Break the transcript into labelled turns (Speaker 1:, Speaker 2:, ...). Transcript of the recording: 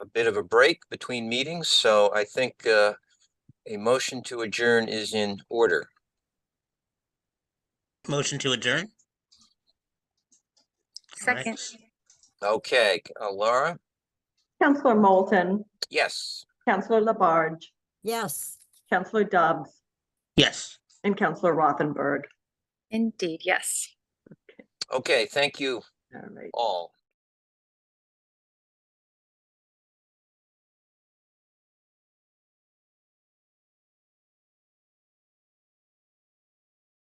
Speaker 1: bit of a break between meetings, so I think uh, a motion to adjourn is in order.
Speaker 2: Motion to adjourn? All right.
Speaker 3: Second,
Speaker 1: Okay, uh, Laura?
Speaker 4: Counselor Moulton,
Speaker 1: Yes.
Speaker 4: Counselor Labarge,
Speaker 5: Yes.
Speaker 4: Counselor Dobbs,
Speaker 2: Yes.
Speaker 4: and Counselor Rothenberg.
Speaker 3: indeed, yes.
Speaker 1: Okay, thank you
Speaker 4: All right.
Speaker 1: all.